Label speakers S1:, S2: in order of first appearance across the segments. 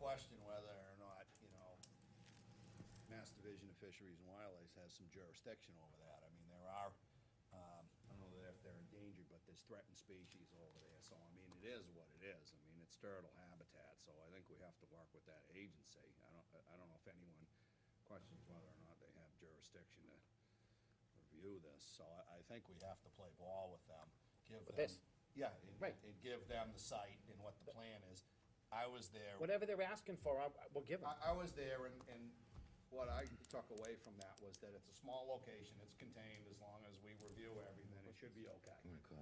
S1: question whether or not, you know, Mass Division of Fisheries and Wildlife has some jurisdiction over that. I mean, there are, um, I don't know if they're endangered, but there's threatened species over there, so I mean, it is what it is. I mean, it's turtle habitat, so I think we have to work with that agency. I don't, I don't know if anyone questions whether or not they have jurisdiction to review this, so I, I think we have to play ball with them, give them.
S2: With this?
S1: Yeah, and-
S2: Right.
S1: and give them the site and what the plan is. I was there.
S2: Whatever they're asking for, I, I- we'll give them.
S1: I, I was there and, and what I took away from that was that it's a small location, it's contained, as long as we review everything, it should be okay.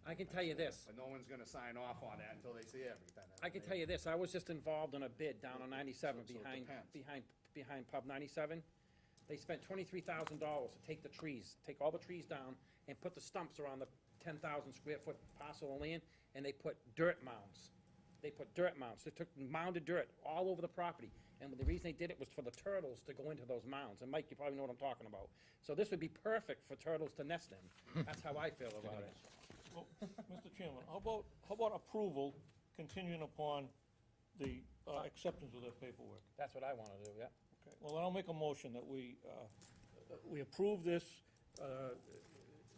S2: I can tell you this,
S1: But no one's gonna sign off on that until they see everything.
S2: I can tell you this, I was just involved in a bid down on ninety-seven
S1: So- so it
S2: behind,
S1: depends.
S2: behind, behind pub ninety-seven. They spent twenty-three thousand dollars to take the trees, take all the trees down and put the stumps around the ten thousand square foot parcel of land, and they put dirt mounds. They put dirt mounds, they took mounded dirt all over the property, and the reason they did it was for the turtles to go into those mounds, and Mike, you probably know what I'm talking about. So this would be perfect for turtles to nest in, that's how I feel about it.
S3: Well, Mr. Chairman, how about, how about approval continuing upon the uh, acceptance of that paperwork?
S2: That's what I wanna do, yeah.
S3: Okay. Well, then I'll make a motion that we, uh, we approve this, uh,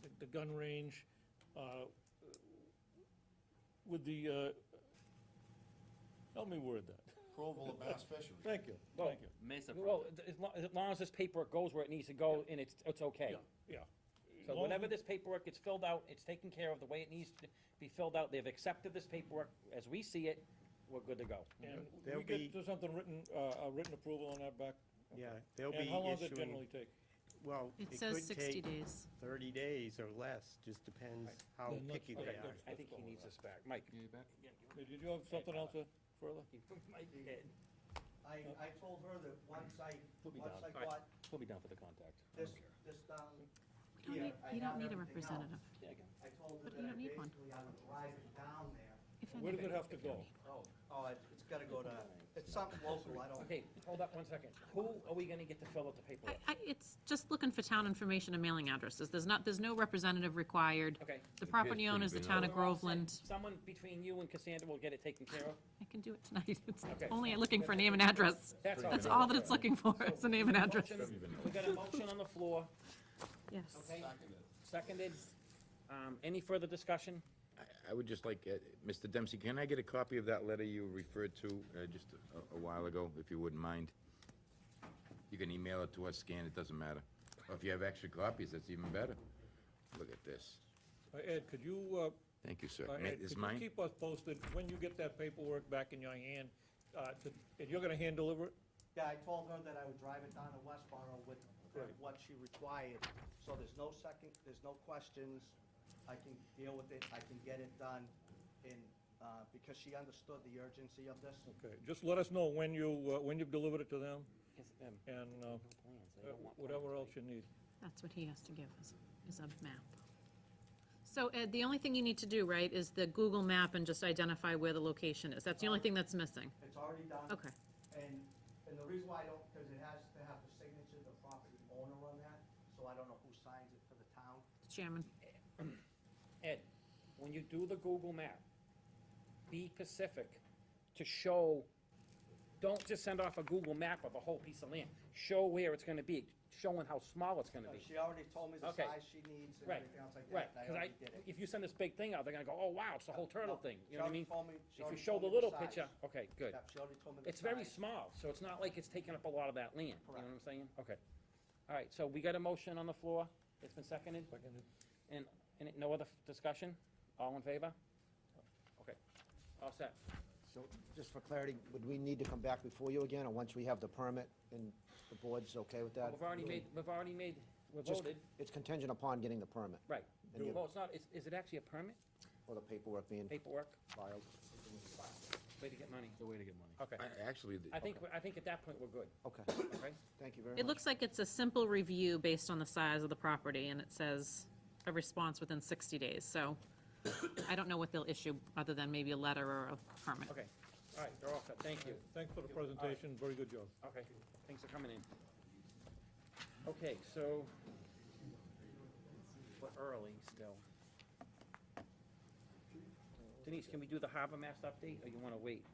S3: the- the gun range uh, with the, uh, help me word that.
S1: Approval of Bass Fisheries.
S3: Thank you,
S2: Well,
S3: thank you.
S4: Mesa
S2: Well,
S4: Project.
S2: th- as long, as long as this paperwork goes where it needs to go, and it's, it's okay.
S3: Yeah.
S2: So whenever this paperwork gets filled out, it's taken care of the way it needs to be filled out, they've accepted this paperwork, as we see it, we're good to go.
S3: And
S5: There'll
S3: we get
S5: be-
S3: to something written, uh, a written approval on that back?
S5: Yeah, they'll be
S3: And how long does it
S5: issuing,
S3: generally take?
S5: well,
S6: It
S5: it
S6: says
S5: could
S6: 60
S5: take
S6: days.
S5: thirty days or less, just depends how
S3: Then let's-
S5: picky
S3: okay,
S5: they are.
S3: good.
S2: I think he needs this back. Mike?
S3: Did you have something else uh, further?
S2: Mike,
S7: I, I told her that once I,
S2: Put me
S7: once
S2: down.
S7: I
S2: All right.
S7: got
S2: We'll be down for the contact.
S7: this, this down
S6: We don't
S7: here,
S6: need-
S7: I
S6: You
S7: have
S6: don't need a
S7: everything
S6: representative.
S7: else.
S2: Yeah, again.
S7: I told her
S6: But you
S7: that I
S6: don't need one.
S7: basically I would drive it down there.
S6: if
S3: Where does
S6: any.
S3: it have to go?
S7: Oh. Oh, it- it's gotta go to, it's something local, I don't.
S2: Okay, hold up one second. Who are we gonna get to fill out the
S6: I,
S2: paperwork?
S6: I, it's just looking for town information and mailing addresses. There's not, there's no representative required.
S2: Okay.
S6: The property owner is the town of
S2: We're all set.
S6: Groveland.
S2: Someone between you and Cassandra will get it taken care of.
S6: I can do it tonight. It's
S2: Okay.
S6: only looking for a name and address.
S2: That's all.
S6: That's all that it's looking for, is a name and address.
S2: Motion- We got a motion on the floor,
S6: Yes.
S2: okay? Seconded. Um, any further discussion?
S8: I would just like, uh, Mr. Dempsey, can I get a copy of that letter you referred to uh, just a- a while ago, if you wouldn't mind? You can email it to us, scan, it doesn't matter. Or if you have extra copies, that's even better. Look at this.
S3: Uh, Ed, could you, uh,
S8: Thank you, sir.
S3: Uh,
S8: Ma-
S3: Ed,
S8: Is
S3: could
S8: mine?
S3: you keep us posted when you get that paperwork back in your hand? uh, to- And you're gonna hand deliver it?
S7: Yeah, I told her that I would drive it down to Westboro with with what she required, so there's no second, there's no questions. I can deal with it, I can get it done, and, uh, because she understood the urgency of this.
S3: Okay, just let us know when you, uh, when you've delivered it to them
S2: Yes, um,
S3: and uh,
S2: plans, they
S3: uh,
S2: don't want
S3: whatever else you need.
S6: That's what he has to give us, is a map. So Ed, the only thing you need to do, right, is the Google map and just identify where the location is. That's the only thing that's missing.
S7: It's already done.
S6: Okay.
S7: And, and the reason why I don't, because it has to have the signature of the property owner on that, so I don't know who signs it for the town.
S6: Chairman.
S2: Ed, when you do the Google map, be Pacific to show, don't just send off a Google map of a whole piece of land. Show where it's gonna be, showing how small it's gonna
S7: Uh,
S2: be.
S7: She already told me the
S2: Okay.
S7: size she needs and
S2: Right,
S7: everything else like
S2: Right,
S7: that, and
S2: because
S7: I
S2: I,
S7: already did it.
S2: if you send this big thing out, they're gonna go, oh, wow, it's the whole turtle
S7: No,
S2: thing,
S7: she
S2: you know what I
S7: already
S2: mean?
S7: told me- she
S2: If you
S7: already
S2: show
S7: told
S2: the
S7: me
S2: little
S7: size.
S2: picture, okay, good.
S7: Yep, she already told me the
S2: It's very
S7: size.
S2: small, so it's not like it's taking up a lot of that land, you know what
S7: Correct.
S2: I'm saying? Okay. All right, so we got a motion on the floor, it's been seconded,
S3: Seconded.
S2: and, and it- no other f- discussion? All in favor? Okay, all set.
S9: So, just for clarity, would we need to come back before you again, or once we have the permit and the board's okay with that?
S2: We've already made, we've already made, we
S9: Just-
S2: voted,
S9: It's contingent upon getting the permit,
S2: right.
S9: And you-
S2: Well, it's not, is, is it actually a permit,
S9: or the paperwork being
S2: paperwork,
S9: filed.
S2: way to get money?
S4: It's a way to get money.
S2: Okay,
S8: I- Actually, the-
S2: I think, we're- I think at that point, we're good,
S9: Okay,
S2: okay?
S9: thank you very much.
S6: It looks like it's a simple review based on the size of the property, and it says a response within 60 days, so I don't know what they'll issue, other than maybe a letter or a permit.
S2: Okay, all right, they're all set, thank you.
S3: Thanks for the presentation, very good job.
S2: Okay, thanks for coming in. Okay, so, we're early still. Denise, can we do the harbor master update, or you wanna wait?